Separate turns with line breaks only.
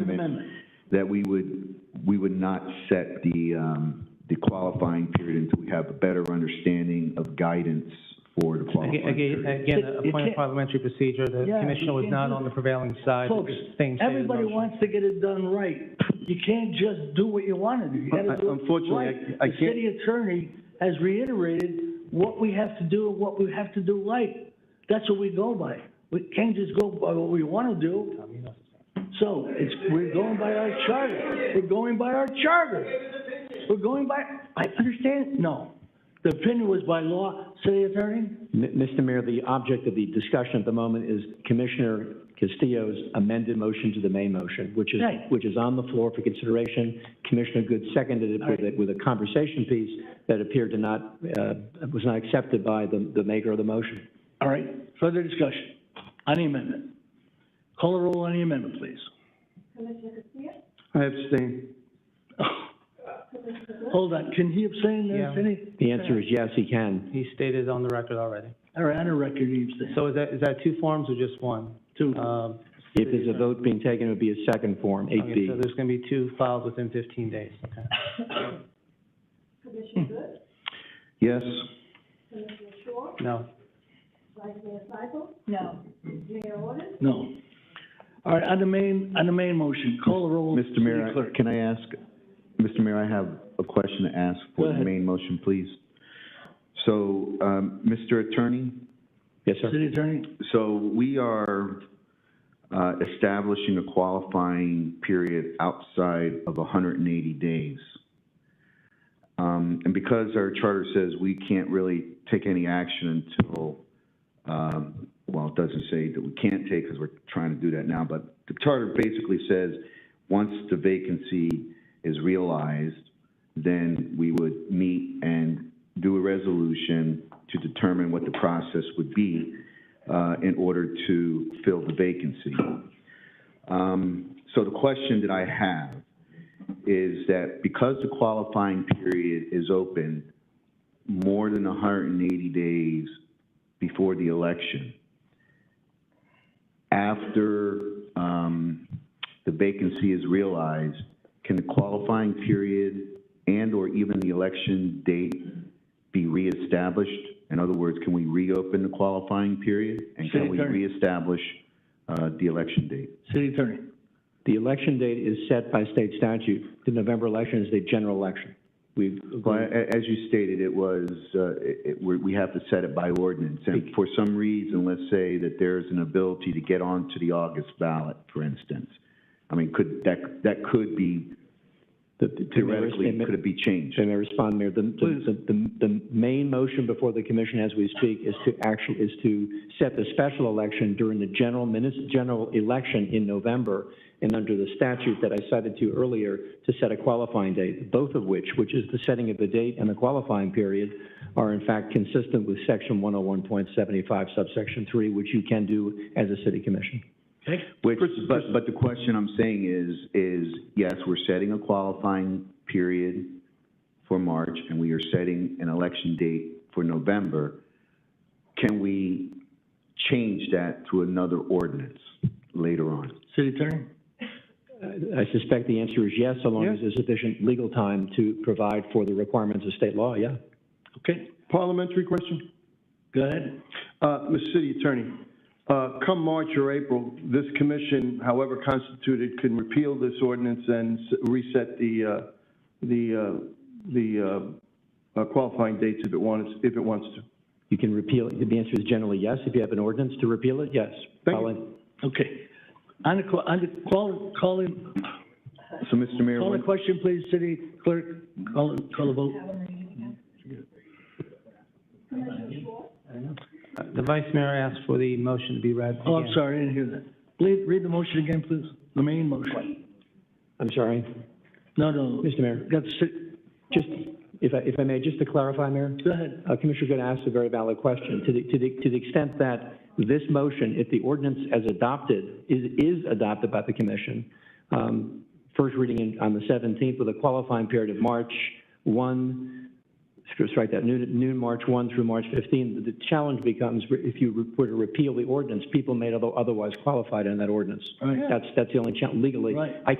amendment.
that we would, we would not set the, um, the qualifying period until we have a better understanding of guidance for the qualifying
Aga- Again,
period.
again,
It-
a
it
point
can't-
of parliamentary procedure, the
Yeah,
commissioner
you
was
can't
not
do
on
that.
the prevailing side. of
Folks,
the same state of
everybody
motion.
wants to get it done right. You can't just do what you want to do. You gotta
I-
do it
Uh, unfortunately, I-
right.
I
The
can't-
city attorney has reiterated what we have to do, and what we have to do right. That's what we go by. We can't just go by what we want to do. So it's, we're going by our charter. We're going by our charter. We're going by, I understand, no. The opinion was by law, city attorney?
M- Mr. Mayor, the object of the discussion at the moment is Commissioner Castillo's amended motion to the main motion, which is,
Right.
which is on the floor for consideration. Commissioner Good seconded it with, a- with a conversation piece that appeared to not, uh, was not accepted by the, the maker of the motion.
All right, further discussion on the amendment. Call a roll on the amendment, please.
I abstain.
Hold on, can he abstain there,
Yeah.
Vinnie?
The answer is yes, he can.
He stated on the record already.
All right, on the record, he abstains.
So is that, is that two forms or just one?
Two. uh,
Um,
If there's a vote being taken, it would be a second form, eight
okay,
B.
so there's gonna be two filed within fifteen days, okay.
Yes,
No,
No. All right, on the main, on the main motion, call a roll.
Mr. Mayor,
City Clerk.
I- can I ask, Mr. Mayor, I have a question to ask
Go
for the
ahead.
main motion, please. So, um, Mr. Attorney,
Yes, sir.
City attorney,
so we are, uh, establishing a qualifying period outside of hundred and eighty days. Um, and because our charter says we can't really take any action until, um, well, it doesn't say that we can't take, because we're trying to do that now, but the charter basically says, once the vacancy is realized, then we would meet and do a resolution to determine what the process would be, uh, in order to fill the vacancy. Um, so the question that I have is that because the qualifying period is open more than hundred and eighty days before the election, after, um, the vacancy is realized, can the qualifying period and/or even the election date be reestablished? In other words, can we reopen the qualifying period? And
City
can we
Attorney.
reestablish, uh, the election date?
city attorney.
The election date is set by state statute. The November election is the general election. We've,
Well, a- as you stated, it was, uh, it, it- we we have to set it by ordinance. And for some reason, let's say that there's an ability to get onto the August ballot, for instance. I mean, could, that, that could be,
the- the- the mayor's
theoretically,
amendment-
could it be changed?
If I may respond, Mayor, the, the, the, the main motion before the commission as we speak is to actually, is to set the special election during the general minis, general election in November, and under the statute that I cited to you earlier, to set a qualifying date, both of which, which is the setting of the date and the qualifying period, are in fact consistent with section one oh one point seventy-five subsection three, which you can do as a city commission.
Okay,
Which, but, but the question I'm saying is, is, yes, we're setting a qualifying period for March, and we are setting an election date for November. Can we change that to another ordinance later on?
city attorney,
I suspect the answer is yes, so long as there's sufficient legal time to provide for the requirements of state law, yeah.
okay,
Parliamentary question?
go ahead.
Uh, Mr. City Attorney, uh, come March or April, this commission, however constituted, can repeal this ordinance and s- reset the, uh, the, uh, the uh, uh, qualifying dates if it wants, if it wants to.
You can repeal, it. the answer is generally yes. If you have an ordinance to repeal it, yes.
Thank you.
Colin?
Okay. On the, que- on the, call, call in,
So, Mr. Mayor,
call
when-
a question, please, city clerk, call, call a vote.
the vice mayor asked for the motion to be read
Oh, I'm
again.
sorry, I didn't hear that. Please, read the motion again, please, the main motion.
I'm sorry,
No, no,
Mr. Mayor.
that's, it.
Just, if I, if I may, just to clarify, Mayor,
go ahead.
uh, Commissioner Good asked a very valid question. To the, to the, to the extent that this motion, if the ordinance as adopted, is, is adopted by the commission, um, first reading in- on the 17th with a qualifying period of March 1 Screw- strike that, noon, noon, March 1 through March 15, the- the challenge becomes, re- if you re- were to repeal the ordinance, people may other- otherwise qualified in that ordinance.
Right.
That's, that's the only challenge legally.
Oh, Right.
I